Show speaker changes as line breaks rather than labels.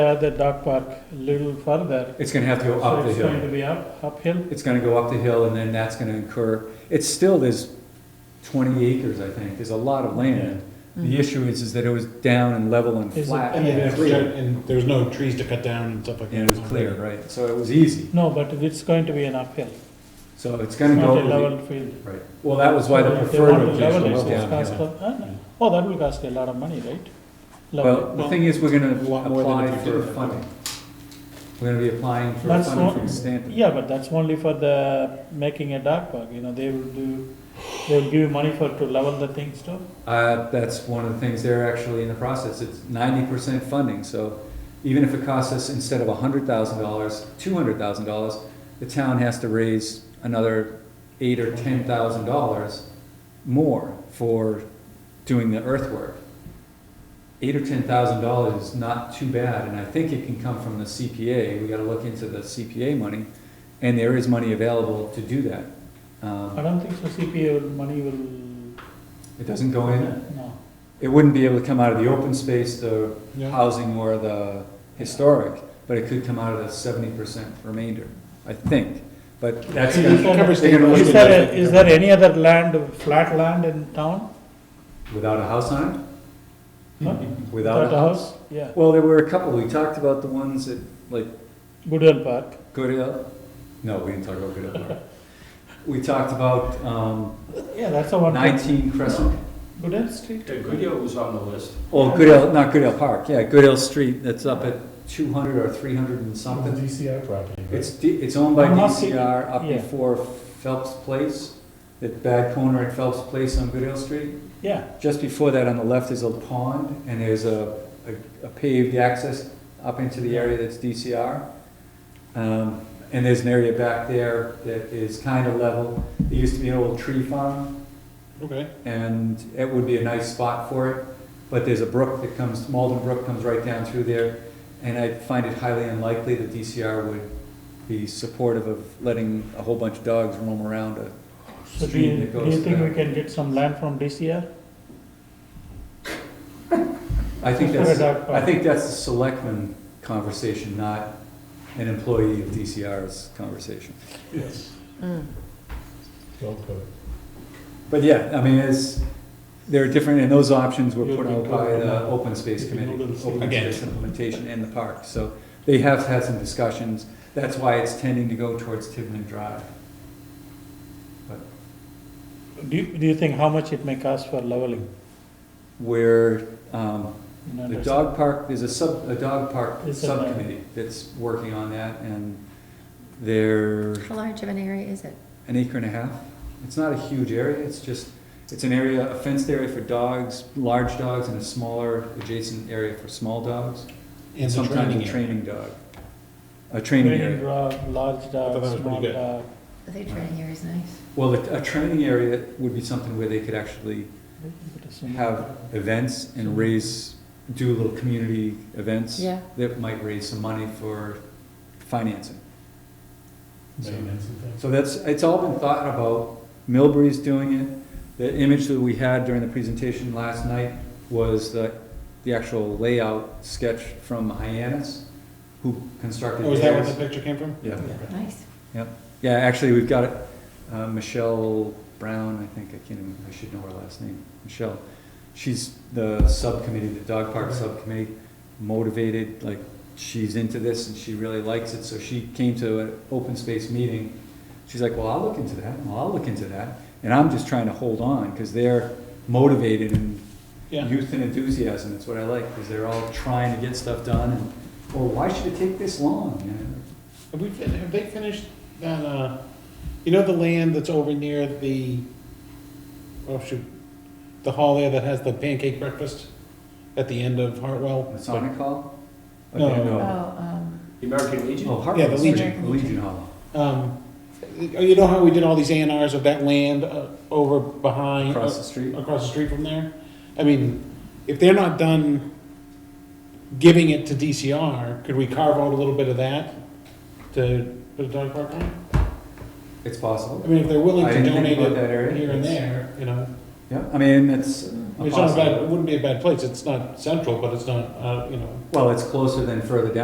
uh, the dog park a little further.
It's gonna have to go
So
up the
it's going to
hill.
be up, uphill.
It's gonna go up the hill and then that's gonna incur, it's still, there's twenty acres, I think, there's a lot of land. The issue is, is that it was down and level and
Is it-
flat,
And then
Yeah.
it's clear, and there's no trees to cut down and stuff like that.
and it was clear, right? So it was easy,
No, but it's going to be an uphill,
so it's
It's
gonna
not
go.
a
over the-
level field.
Right, well, that was why the
If they
preferred
want to level
location
it,
was
so it's
down
cost
here.
of- uh, no. Oh, that will cost a lot of money, right?
Well,
Level.
the thing is, we're gonna
A lot more than
apply
if you
for
did it.
funding. We're gonna be applying for
That's
funding
not-
from Stanford.
Yeah, but that's only for the, making a dog park, you know, they will do, they will give you money for, to level the things too.
Uh, that's one of the things they're actually in the process, it's ninety percent funding, so even if it costs us, instead of a hundred thousand dollars, two hundred thousand dollars, the town has to raise another eight or ten thousand dollars more for doing the earthwork. Eight or ten thousand dollars is not too bad, and I think it can come from the CPA, we gotta look into the CPA money, and there is money available to do that.
I
Um,
don't think so CPA will, money will,
it doesn't go in,
no.
it wouldn't be able to come out of the open space, the
Yeah.
housing or the historic, but it could come out of the seventy percent remainder, I think. But that's,
Is
gonna-
there-
covers
they're gonna
the-
look
Is
at
there,
it
a- is there any other land, flat land in town?
without a house on
No?
it, without a house.
Yeah,
Well, there were a couple, we talked about the ones that, like,
Goodell Park,
Goodell, no, we didn't talk about Goodell Park. We talked about, um,
yeah, that's the one, thing.
nineteen Crescent,
Goodell Street,
The Goodyear was on the list.
oh, Goodell, not Goodell Park, yeah, Goodell Street, that's up at two hundred or three hundred and something.
DCI property.
It's, D- it's owned by
I'm not thinking-
DCR up
yeah.
before Phelps Place, that bad corner at Phelps Place on Goodell Street.
yeah,
Just before that, on the left is a pond, and there's a, a- a paved access up into the area that's DCR. Um, and there's an area back there that is kind of level. There used to be an old tree farm,
Okay,
and it would be a nice spot for it. But there's a brook that comes, Malden Brook comes right down through there, and I find it highly unlikely that DCR would be supportive of letting a whole bunch of dogs roam around a
so do
street
you,
that
do you
goes
think we
through.
can get some land from DCR?
I think
Let's put
that's,
a dog
I
park.
think that's a selectman conversation, not an employee of DCR's conversation.
yes. Well put.
But yeah, I mean, it's, there are different, and those options were
You'll
put
be
out by
covered
the
now.
Open Space
If you
Committee,
know
Open
those things. Again.
Space Implementation and the park, so they have had some discussions, that's why it's tending to go towards Tiverton Drive.
Do you, do you think how much it may cost for leveling?
Where, um,
You know,
the
that's-
dog park, there's a sub, a dog park
It's in there.
subcommittee that's working on that, and they're
How large of an area is it?
an acre and a half. It's not a huge area, it's just, it's an area, a fenced area for dogs, large dogs, and a smaller adjacent area for small dogs.
And the
Sometimes
training
a
area.
training dog. A training area.
dog, large
that was
dog,
pretty
small
good.
dog.
I think training area is nice.
Well, a a training area would be something where they could actually
Put a swimming
have events and raise, do little community events.
Yeah.
That might raise some money for financing. So-
Maintenance and things.
So that's, it's all been thought about, Milbury's doing it, the image that we had during the presentation last night was the, the actual layout sketch from Hyannis, who constructed
Oh, is that where the
theirs.
picture came from?
Yeah,
Nice.
yeah, actually, we've got it, uh, Michelle Brown, I think, I can't even, I should know her last name, Michelle. She's the subcommittee, the dog park subcommittee, motivated, like, she's into this and she really likes it, so she came to an open space meeting. She's like, well, I'll look into that, well, I'll look into that, and I'm just trying to hold on, because they're motivated and
Yeah.
youth and enthusiasm, that's what I like, because they're all trying to get stuff done, and, well, why should it take this long? You know,
Have we, fin- have they finished that, uh, you know the land that's over near the, oh shoot, the hall there that has the pancake breakfast at the end of Hartwell?
Masonic Hall?
No.
Okay,
Oh, um,
The American Legion?
Oh, Hartford.
Yeah, the
Street,
Legion.
Legion Hall.
Um, you you know how we did all these A and Rs of that land uh, over behind, uh,
Across the street.
across the street from there? I mean, if they're not done giving it to DCR, could we carve out a little bit of that to put a dog park on?
It's
I
possible.
mean, if they're willing
I
to
didn't think
donate
about
it
that area.
here and there, you know,
Yeah, I mean, it's,
It's not uh, a bad, it wouldn't be a bad place, it's not central, but it's not, uh, you know.
Well, it's closer than further down